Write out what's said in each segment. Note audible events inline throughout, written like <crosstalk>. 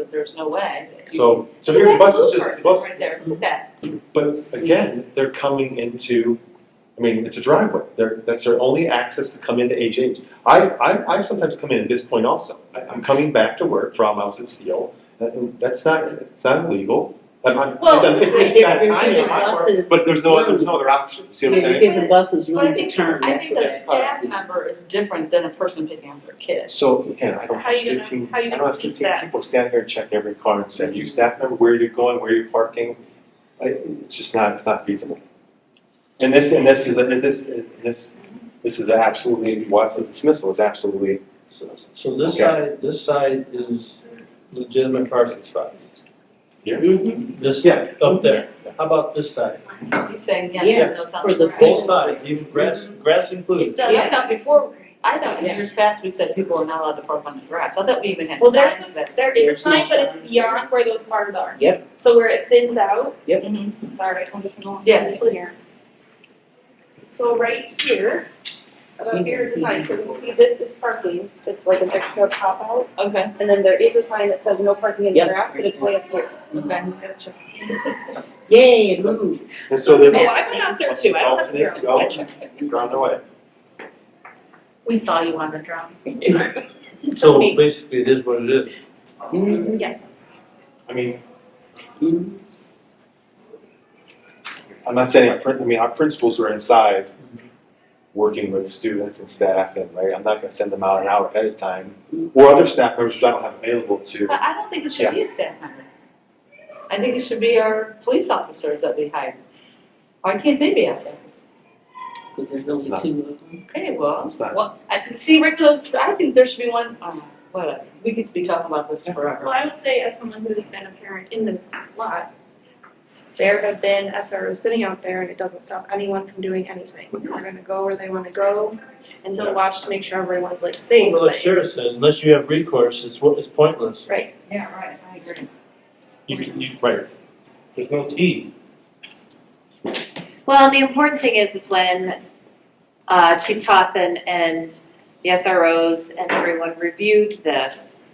that there's no way. that you- So, so here the bus is Because just, that the blue bus, person right there, look at but again, they're coming into, I mean, it's a driveway. They're, that's their only access to come into HH. I've, I've, I've sometimes come in at this point also. I, I'm coming back to work from, I was at Steel. That- That's not, it's not illegal. I'm, I'm, Oh. it's, it's, it's <laughs> that time on my part, but there's no, other- there's no other option. You see what I'm saying? Give the buses But I room to think, turn, I that's think the a best part. staff member is different than a person picking up their kid. So again, I don't How you have gonna- fifteen, how you I don't gonna have police fifteen that? people standing here checking every car and saying, you staff member, where you're going, where you're parking. I, it's just not, it's not feasible. And this, and this is, a- is this, this, this is absolutely, Watson's dismissal is absolutely, So this Okay. side, this side is legitimate parking spots. Mhm. This Yes. up there. How about this side? He's saying yes, Yeah, but they'll tell for me the right. Both sides, even Mm-hmm. grass, grass included. It does. Yeah, I thought before, I thought in Yeah. years past, we said people are not allowed to park on the grass, I thought we even had Well, there's signs a, that. there is a There's no sign, but it's signs. beyond where those cars are. Yep. So where it thins out, Mhm. sorry, I'm just going. Yes, please. So right here, Mm-hmm. about here is the sign, so you see this is parking, it's like an extra pop out. Okay, And then there is a sign that says no parking in the Yep. grass, but it's way up here. okay. Yay, move. and so they're. Oh, Oh, I went out there too, I don't have a Alternate, drone. Oh. go, You're on the way. We saw you on the drum. So basically, it is what it is. Mhm. I mean, Mhm. I'm not saying our print, I mean, our principals are inside working with students and staff and, right, I'm not gonna send them out an hour ahead of time. Or other staff members which I don't have available to. But I don't think it should be a staff member. I think it should be our police officers that we hire. Why can't they be out there? 'Cause there's only not- two of them. Okay, well, It's not- well, I, see, Rick, those, I think there should be one, oh, whatever, we could be talking about this Well, forever. I would say as someone who's been a parent in this lot, there have been SROs sitting out there and it doesn't stop anyone from doing anything. They're gonna go where they wanna go and Yeah. he'll watch to make sure everyone's like safe, Well, like but Sarah said, unless you have recourse, it's, wo- it's pointless. right? Yeah, right, I agree. You, can- you, Right. there's no key. Well, and the important thing is, is when uh, Chief Coffin and the SROs and everyone reviewed this,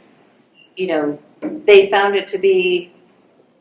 you know, they found it to be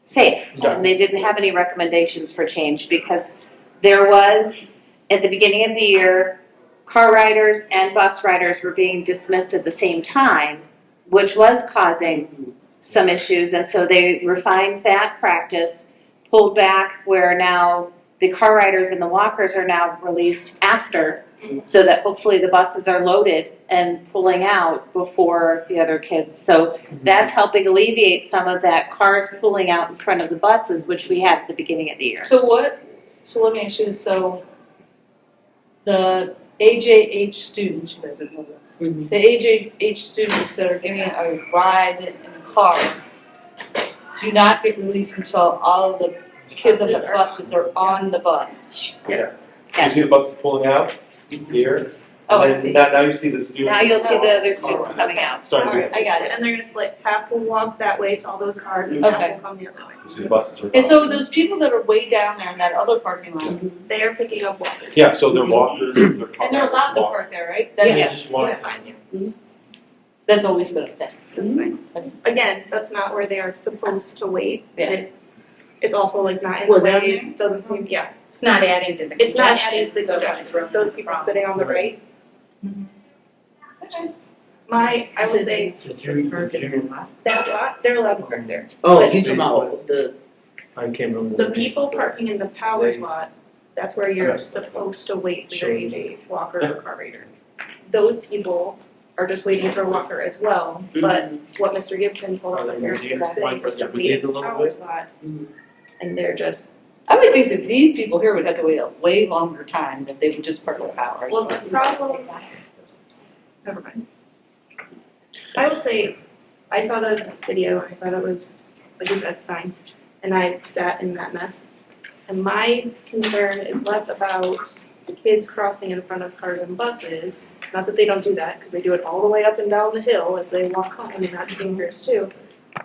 safe. Yeah. And they didn't have any recommendations for change because there was, at the beginning of the year, car riders and bus riders were being dismissed at the same time, which was causing some issues. And so they refined that practice, pulled back where now the car riders and the walkers are now released after so that hopefully the buses are loaded and pulling out before the other kids. So that's helping alleviate some of that cars pulling out in front of the buses, which we had at the beginning of the year. So what, so let me ask you, this. so the AJH students, you guys would know this, the Mhm. AJH students that are getting a ride in a car do not get released until all of the kids on the buses are on the bus. Yes. You Yes. see the buses pulling out here? Oh, I and then see. Now, now you see the students. Now you'll see the other students Alright. coming out. Starting to. Alright, I got it. And they're gonna split, half will walk that way to all those cars and half Okay. will come the other way. You see the buses are. And so those people that are way down there in that other parking lot, and They are picking up walkers. Yeah, so they're walkers, they're car they're riders, allowed to walk- park there, right? They That's, just want. That's fine, yeah, that's always been a thing. that's fine. Again, that's not where they are supposed to wait. Yeah. It- It's also like not in the Well, down way, it doesn't seem, yeah, It's not adding to the it's not adding to the so congestion, it's really those people wrong. sitting on the Right. right. My, I would say Did you, did you, that lot, they're allowed to park there. Oh, But- you talking about the, I can't remember. The name. people parking in the powers lot, that's where you're Okay. supposed to wait for Sure. your AJ walker or car reader. Those people are just waiting for a walker as well, but what Mr. Gibson told all the parents who were sitting was to wait in the powers lot. Mhm. And they're just, I would think that these people here would have to wait a way longer time that they would just park their hours. well, the problem. Never mind. I will say, I saw the video, I thought it was, like you said, fine, and I sat in that mess. And my concern is less about the kids crossing in front of cars and buses, not that they don't do that, because they do it all the way up and down the hill as they walk home, and that's dangerous too.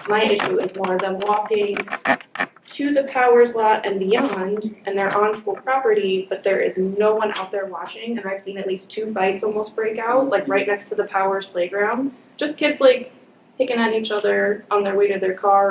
My issue is more them walking to the powers lot and beyond, and they're on school property, but there is no one out there watching, and I've seen at least two fights almost break out, like right next to the powers playground. Just kids like picking on each other on their way to their car